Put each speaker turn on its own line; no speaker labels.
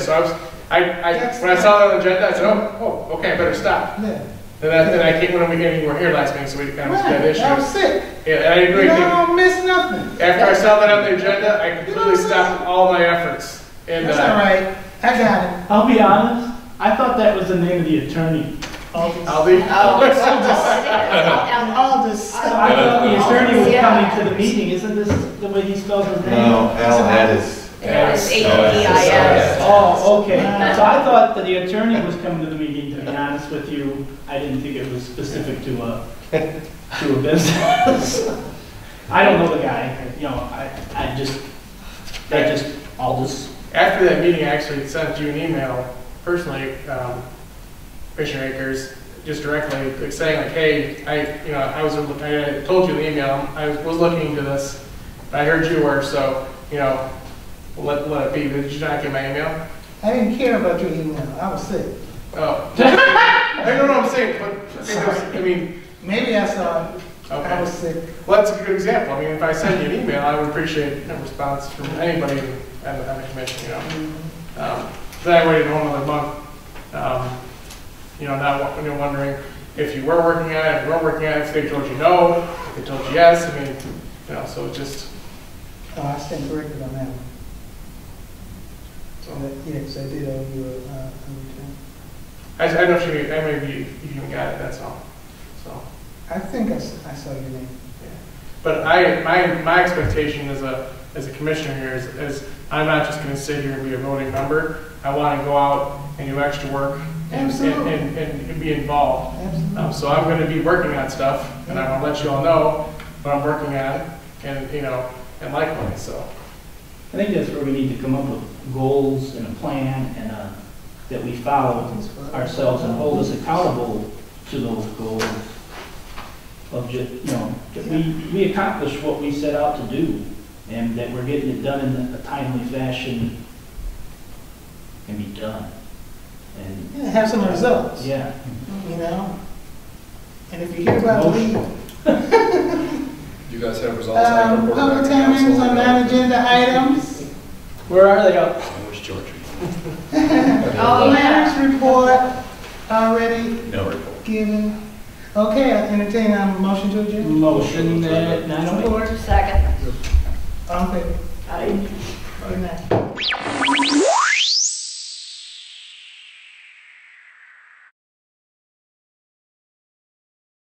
So I was, I, I, when I saw that on the agenda, I said, oh, oh, okay, I better stop.
Yeah.
And I, and I came when we, and we were here last meeting, so we kind of was that
Right, that
issue.
was sick.
Yeah, and I
You
agree.
know,
After
I don't miss nothing.
I saw that on the agenda, I completely
You know what I'm
stopped all my efforts. And,
That's all
uh,
right. I got it.
I'll be honest, I thought that was the name of the attorney. Oh,
I'll be,
All this
I
stuff.
thought the attorney was coming to the meeting, isn't this the way he spells his name?
No, Al had his,
It's A-D-I-S.
Oh, okay, so I thought that the attorney was coming to the meeting, to be honest with you, I didn't think it was specific to a, to a business. I don't know the guy, you know, I, I just, I just, I'll just
after that meeting, I actually sent you an email personally, um, Commissioner Akers, just directly, like saying like, hey, I, you know, I was, I told you in the email, I was was looking into this, but I heard you were, so, you know, let, let it be, did you not get my email?
I didn't care about your email. I was sick.
Oh. I don't know what I'm saying, but I think there's- I mean,
Maybe I saw it. I
okay.
was sick.
Well, that's a good example. I mean, if I send you an email, I would appreciate a response from anybody on the, on the commission, you know? Um, Then I waited a whole another month, um, you know, not, wa- you know, wondering if you were working on it, if you weren't working on it, if they told you no, if they told you yes, I mean, you know, so it just,
Oh, I stand corrected on that one.
so.
But, Yes, I did owe you a, uh, a
I, I don't know if you, I mean, if you, if you even got it, that's all, so.
return. I think I s- I saw your name.
But I, my, my expectation as a, as a commissioner here is, is I'm not just gonna sit here and be a voting member. I wanna go out and do extra work and, and,
Absolutely.
and- and, and be involved.
Absolutely.
Um, so I'm gonna be working on stuff, and I wanna let you all know what I'm working on, and, you know, and likewise, so.
I think that's where we need to come up with goals and a plan and uh that we follow ourselves and hold us accountable to those goals. Of just, you know, that we, we accomplish what we set out to do and that we're getting it done in a timely fashion and be done. And,
Yeah, Have some results, you
yeah,
know? And if you hear about the league,
You guys have results. I can
um,
report back
public
to
hearings
council.
on non-agenda items,
where are they up?
I wish George.
Oh, yeah.
planners report already
No report.
given. Okay, I entertain a motion to adjourn.
Motion uh, at nine oh eight.
Second.
All in favor? Good night.